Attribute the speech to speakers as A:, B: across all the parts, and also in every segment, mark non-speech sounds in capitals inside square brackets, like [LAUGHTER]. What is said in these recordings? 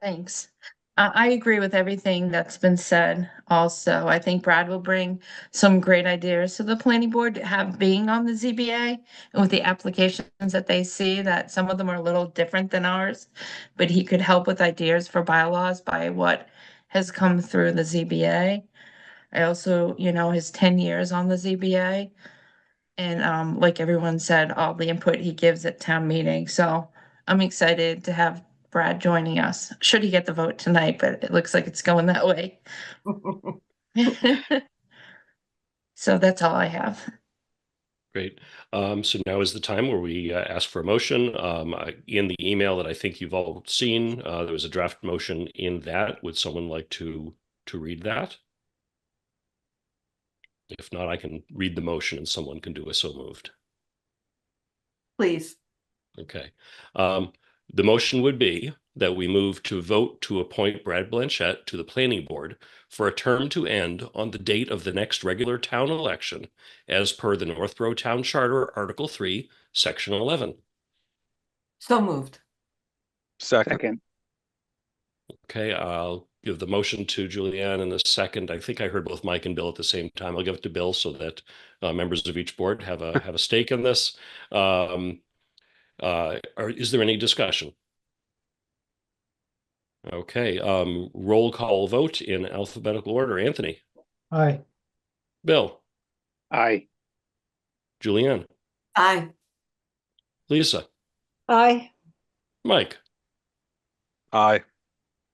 A: Thanks. I, I agree with everything that's been said also. I think Brad will bring some great ideas to the planning board to have being on the ZBA and with the applications that they see, that some of them are a little different than ours. But he could help with ideas for bylaws by what has come through the ZBA. I also, you know, his ten years on the ZBA. And um, like everyone said, all the input he gives at town meeting, so I'm excited to have Brad joining us. Should he get the vote tonight, but it looks like it's going that way. [LAUGHS] So that's all I have.
B: Great. Um, so now is the time where we uh, ask for a motion. Um, I- in the email that I think you've all seen, uh, there was a draft motion in that. Would someone like to to read that? If not, I can read the motion and someone can do a so moved.
C: Please,
B: Okay. Um, the motion would be that we move to vote to appoint Brad Blanchette to the planning board for a term to end on the date of the next regular town election as per the Northborough Town Charter, Article Three, Section eleven.
C: so moved.
D: Second,
E: Second,
B: Okay, I'll give the motion to Julianne in a second. I think I heard both Mike and Bill at the same time. I'll give it to Bill so that uh, members of each board have a have a stake in this. Um, uh, are, is there any discussion? Okay, um, roll call vote in alphabetical order. Anthony,
F: Aye,
B: Bill,
E: aye,
B: Julianne,
C: Aye,
B: Lisa,
G: Aye,
B: Mike,
D: aye,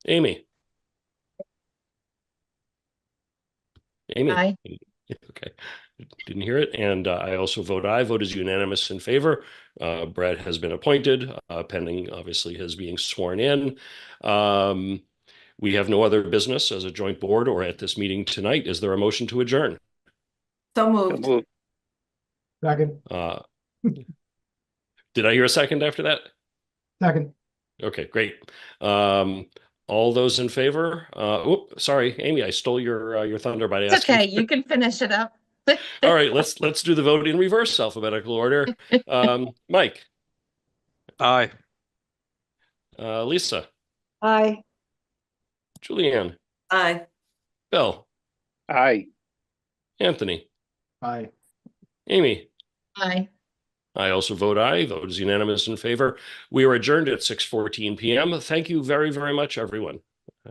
B: Amy. Amy.
A: Aye.
B: [LAUGHS] Okay, didn't hear it. And uh, I also vote aye. Vote is unanimous in favor. Uh, Brad has been appointed, uh, pending obviously his being sworn in. Um, we have no other business as a joint board or at this meeting tonight. Is there a motion to adjourn?
C: so
E: so
C: moved.
E: moved,
F: second,
B: Uh, did I hear a second after that?
F: second,
B: Okay, great. Um, all those in favor? Uh, whoop, sorry, Amy, I stole your uh, your thunder by
A: It's
B: asking.
A: okay, you can finish it up.
B: All right, let's let's do the vote in reverse alphabetical order. Um, Mike,
D: aye.
B: uh, Lisa.
G: aye.
B: Julianne,
C: Aye.
B: Bill,
E: aye.
B: Anthony,
F: aye.
B: Amy.
A: Bye.
B: I also vote aye. Vote is unanimous in favor. We are adjourned at 6:14 p.m. Thank you very, very much, everyone.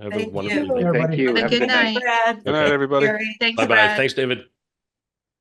B: Have
C: Thank
B: a wonderful
C: you.
B: evening.
E: Thank
F: Everybody.
E: you.
A: Have a
E: Have a
A: good night.
C: Brad,
D: Good night,
B: Okay.
D: everybody.
C: Gary.
A: Thanks,
B: Bye bye.
A: Brad.
B: Thanks, David.